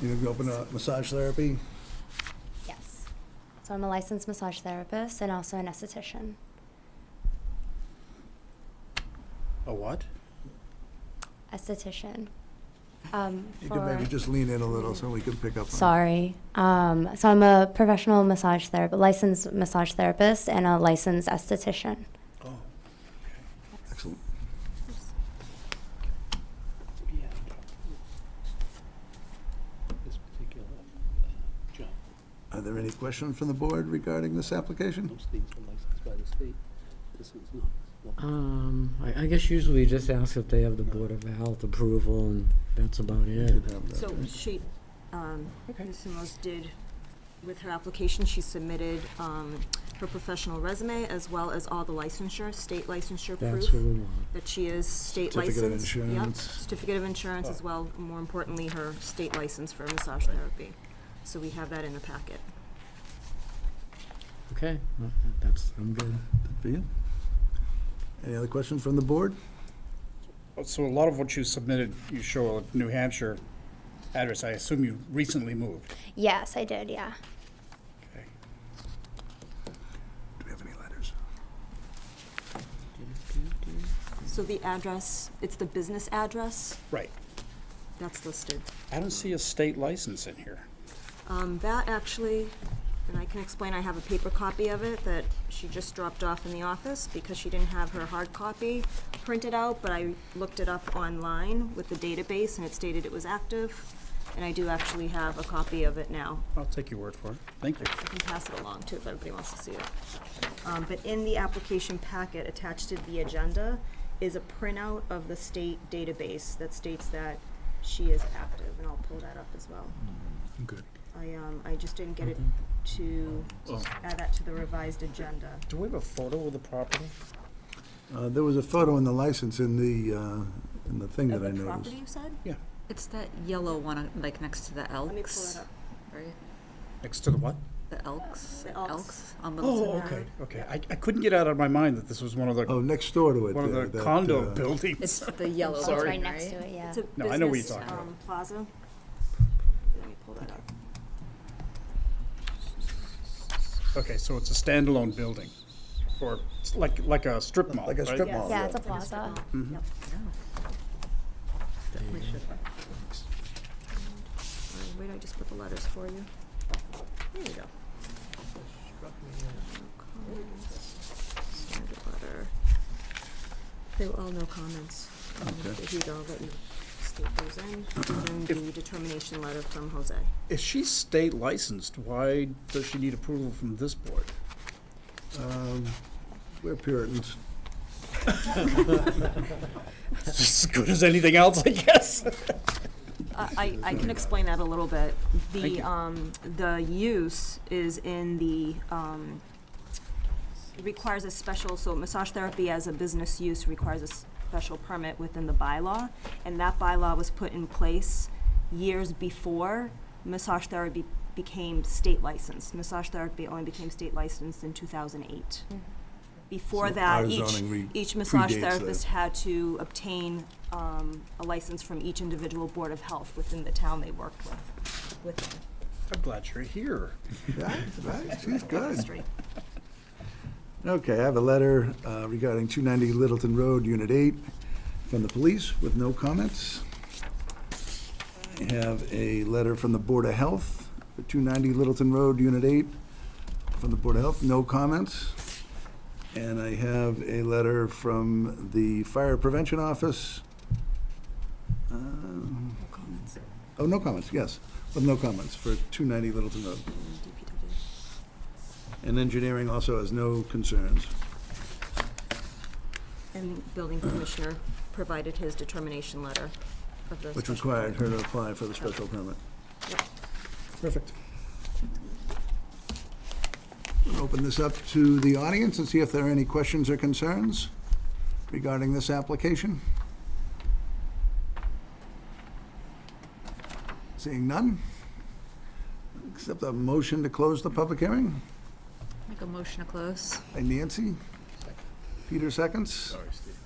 You're gonna be open to massage therapy? Yes. So I'm a licensed massage therapist and also an esthetician. A what? Esthetician. Um, You for, can maybe just lean in a little so we can pick up. on it. sorry. Um, so I'm a professional massage therapist, licensed massage therapist, and a licensed esthetician. Oh, Excellent. yeah. This particular uh, job, Are there any questions from the board regarding this application? most things are licensed by the state. This one's not. Well, Um, I, I guess usually you just ask if they have the Board of Health approval, and that's about You it. should have that. So she, um, Ms. Simos did, with her application, she submitted um, her professional resume as well as all the licensure, state licensure That's what proof we want. that she is state licensed. Certificate of Yep, insurance. Certificate of insurance as well, more importantly, her state license for massage therapy. So we have that in the packet. Okay, well, that's, I'm good. Good For you. Any other questions from the board? So a lot of what you submitted, you show a New Hampshire address. I assume you recently moved. Yes, I did. Yeah. Do we have any letters? So the address, it's the business address Right. that's listed. I don't see a state license in here. Um, that actually, and I can explain, I have a paper copy of it that she just dropped off in the office because she didn't have her hard copy printed out, but I looked it up online with the database and it stated it was active. And I do actually have a copy of it now. I'll take your word for it. Thank you. I can pass it along too if everybody wants to see it. Um, but in the application packet attached to the agenda is a printout of the state database that states that she is active, and I'll pull that up as well. Mm-hmm. Good. I, um, I just didn't get it to Oh. add that to the revised agenda. Do we have a photo of the property? Uh, there was a photo in the license in the, uh, in the thing that I Of the noticed. property, you said? It's that yellow one, uh, like next to the Elks. Let me pull it up. Right? Next to the what? The Elks. The Elks. Elks. on Littleton Oh, okay, Road. okay. I, I couldn't get out of my mind that this was one of the, Oh, next door to it. one of there, the that, condo uh, It's buildings. the yellow Oh, Sorry. it's one, right next to it. Yeah. It's a No, I know what you're business, talking about. um, plaza. Let me pull that up. Okay, so it's a standalone building, or it's like, like a strip mall, Like a right? Mm-hmm. strip Yes. mall. yeah, it's a plaza. Yep. Definitely should have. Sorry, Wait, I just put the letters for you. There you go. No comments. Standard letter. They were all no comments. Um, Okay. Here you go, let you state those in, and then the determination letter from Jose. If she's state licensed, why does she need approval from this board? Um, We're Puritans. It's as good as anything else, I guess. I, I can explain that a little bit. Thank The, you. um, the use is in the, um, it requires a special, so massage therapy as a business use requires a special permit within the bylaw. And that bylaw was put in place years before massage therapy became state licensed. Massage therapy only became state licensed in two thousand eight. Mm-hmm. Before So our that, each, zoning re- each massage predates that. therapist had to obtain um, a license from each individual board of health within the town they worked with, with I'm glad you're here. Right, right, she's good. history. Okay, I have a letter uh, regarding 290 Littleton Road, Unit 8, from the police with no comments. I have a letter from the Board of Health for 290 Littleton Road, Unit 8, from the Board of Health, no comments. And I have a letter from the Fire Prevention Office. Um, No Mm-hmm. comments. Oh, no comments, yes, with no comments for 290 Littleton Road. DPW. And engineering also has no concerns. And building commissioner provided his determination letter of the. Which special required permit. her to apply for the special permit. Yep. Perfect. We'll Open this up to the audience and see if there are any questions or concerns regarding this application. Seeing none? Accept a motion to close the public hearing Make a motion to close. by Nancy. Peter seconds. Sorry, Steve.